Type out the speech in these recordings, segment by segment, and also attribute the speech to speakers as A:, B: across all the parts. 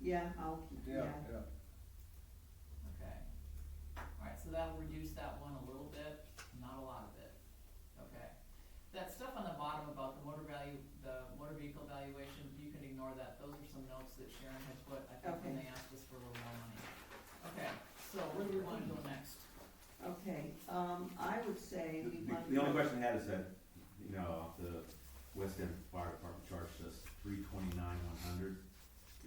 A: Yeah, I'll, yeah,
B: yeah, yeah.
C: Okay. Alright, so that'll reduce that one a little bit, not a lot of it, okay? That stuff on the bottom about the motor value, the motor vehicle valuation, you can ignore that, those are some notes that Sharon had put, I think, when
A: Okay.
C: they asked us for a little more money. Okay, so where do we wanna go next?
A: okay, um, I would say
D: The-
A: we might.
D: The only question I had is that, you know, the West End Fire Department charged us three twenty-nine, one hundred.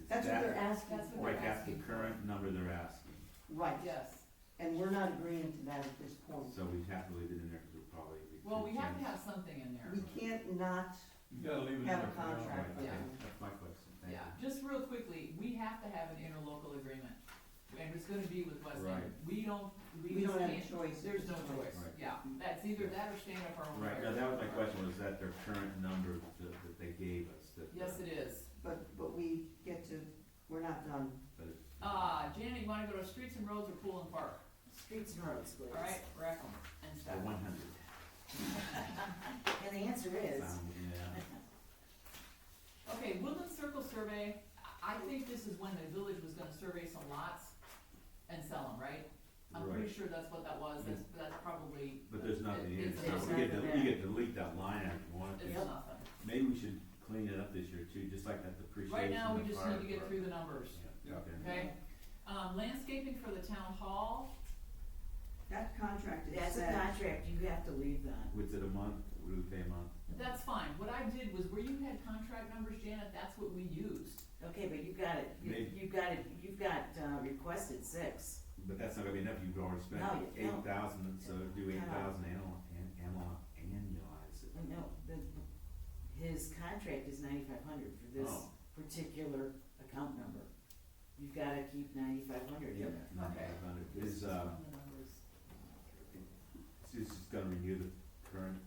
A: That's what they're asking
C: That's what
A: for,
C: they're
D: Like, that's the
C: asking for.
D: current number they're asking,
A: right,
C: Yes,
A: and we're not agreeing to that at this point.
D: so we'd have to leave it in there, cause we'll probably be.
C: Oh. well, we have to have something in there.
A: We can't not
D: You gotta leave
A: have a contract with
C: Yeah.
A: them.
D: That's my question, thank
C: Yeah,
D: you.
C: just real quickly, we have to have an interlocal agreement, and it's gonna be with West End.
D: Right.
C: We don't, we
A: We
C: just
A: don't have
C: can't,
A: a choice.
C: there's no choice,
D: Right.
C: yeah, that's either that or stand up our own.
D: Right,
C: affairs.
D: no, that was my question, was that their current number that, that they gave us, that.
C: Yes, it is.
A: But, but we get to, we're not done.
D: But it's.
C: Uh, Janet, you wanna go to streets and roads or pool and park?
E: Streets and roads, please.
C: Alright, rack 'em and
D: The
C: stack 'em.
D: one hundred.
E: And the answer is,
D: Yeah,
C: Okay, Woodland Circle survey, I, I think this is when the village was gonna survey some lots and sell them, right? I'm pretty
D: right,
C: sure that's what that was, that's, that's probably.
D: but there's nothing
C: it-
D: here,
C: It's,
D: so
C: it's nothing,
D: we get to, we get to delete that line out if you want to.
C: it's nothing.
D: Maybe we should clean it up this year too, just like that depreciation.
C: Right now, we
D: of
C: just
D: fire
C: need to get through the numbers,
D: department.
B: Yeah.
D: Yeah, okay.
C: okay? Um, landscaping for the town hall,
A: That contract is
E: that's a
A: set.
E: contract, you have to leave that.
D: Was it a month, would we pay a month?
C: that's fine. What I did was where you had contract numbers, Janet, that's what we used.
E: Okay, but you've got it, you-
D: Maybe.
E: you've got it, you've got, uh, requested six.
D: But that's not gonna be enough, you've already spent
E: No, you- no.
D: eight thousand, so do
E: No.
D: eight thousand annual, an- annual, annualize it.
E: No, the, his contract is ninety-five hundred for this
D: Oh.
E: particular account number. You've gotta keep ninety-five hundred in
D: Yep,
E: there.
D: ninety-five hundred, is, uh,
C: Some of the numbers.
D: it's just gonna renew the current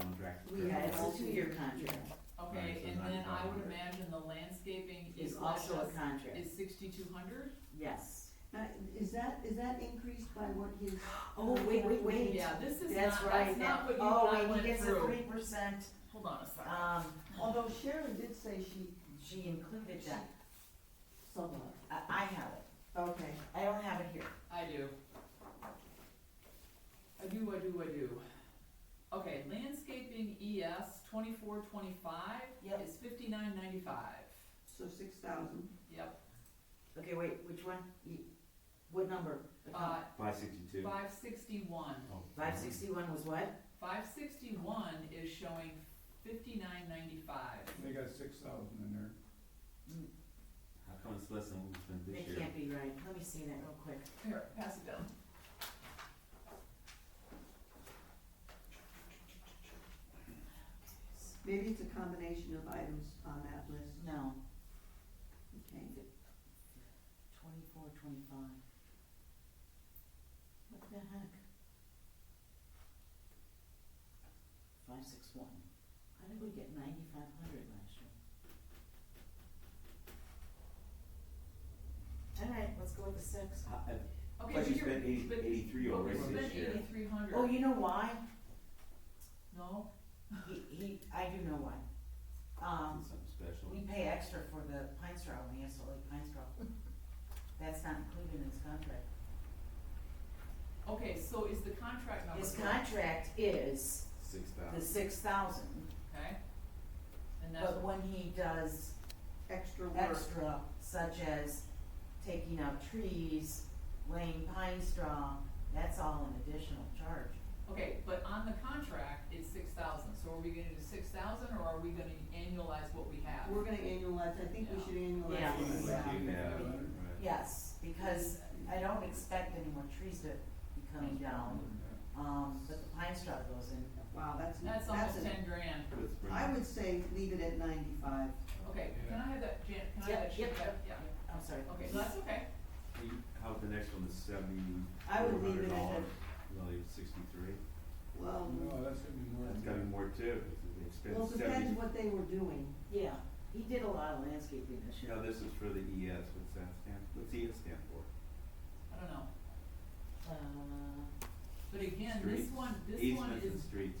D: contract.
A: We
D: correct?
E: Yeah,
A: had
E: it's a two-year contract,
C: Okay,
D: Right, so
C: and then I would
D: 9,500.
C: imagine the landscaping is
E: it's also a
C: less-
E: contract,
C: is sixty-two hundred?
E: yes.
A: Now, is that, is that increased by what his?
E: Oh, wait, wait, wait.
C: Yeah, this is
E: That's
C: not,
E: right,
C: that's
E: that,
C: not what you and
E: oh,
C: I
E: wait,
C: went
E: he gets a
C: through.
E: three percent,
C: Hold on a second.
E: um,
A: Although Sharon did say she
E: she included that,
A: somewhere.
E: I, I have it,
A: Okay,
E: I don't have it here.
C: I do. I do, I do, I do. Okay, landscaping ES twenty-four, twenty-five
E: Yep.
C: is fifty-nine, ninety-five.
A: so six thousand.
C: Yep,
E: Okay, wait, which one? You- What number?
C: uh,
D: Five sixty-two.
C: five sixty-one.
D: Oh,
E: Five sixty-one was what?
C: Five sixty-one is showing fifty-nine, ninety-five.
B: They got six thousand in there.
D: How come it's less than what we spent this
E: It
D: year?
E: can't be right. Let me see that real quick.
C: Here, pass it down.
A: Maybe it's a combination of items on that list.
E: No,
A: Okay,
E: twenty-four, twenty-five. What the heck? Five six one. How did we get ninety-five hundred last year? All right, let's go with the six.
D: Uh, uh,
C: Okay,
D: Plus
C: but
D: you
C: you're-
D: spent eighty,
C: but-
D: eighty-three
C: but we
D: already
C: spent
D: this year.
C: eighty-three hundred.
E: Oh, you know why?
C: No,
E: He, he, I do know why. Um,
D: Something special.
E: We pay extra for the pine straw, we have to lay pine straw. That's not included in his contract.
C: okay, so is the contract number?
E: His
C: correct?
E: contract is
D: Six
E: the
C: Oh.
D: thousand.
E: six thousand,
C: Okay. And that's,
E: but when he does
A: extra work.
E: extra, such as taking out trees, laying pine straw, that's all an additional charge.
C: okay, but on the contract, it's six thousand, so are we gonna do six thousand, or are we gonna annualize what we have?
A: We're gonna annualize, I think we should
E: Yeah.
A: annualize.
E: Yeah.
A: it.
D: Like you have, right.
E: Yes, because I don't expect any more trees to be coming
A: Oh.
E: down, um, but the pine straw goes in.
A: Wow, that's,
C: That's
A: that's,
C: almost
A: a-
C: ten grand,
D: Let's bring
A: I
D: it.
A: would say leave it at ninety-five.
C: okay,
B: Yeah.
C: can I have that, Janet, can I have
E: Yep,
C: that sheet
E: yep,
C: back?
E: yep. I'm sorry.
C: Yeah, okay, so that's okay,
D: You- How about the next one, the seventy?
A: I would leave it at
D: $400, Really, sixty-three?
A: Well,
B: No, that's gonna be more
D: That's
B: than
D: gotta be
B: that.
D: more too, it's
A: well,
D: expensive,
A: it depends
D: seventy,
A: what they were doing.
E: Yeah, he did a lot of landscaping this
D: you
E: year.
D: know, this is for the ES, what's that stand, what's ES stand for?
C: I don't know,
E: Uh,
C: but again, this
D: Streets.
C: one, this one
D: Easements
C: is
D: and streets,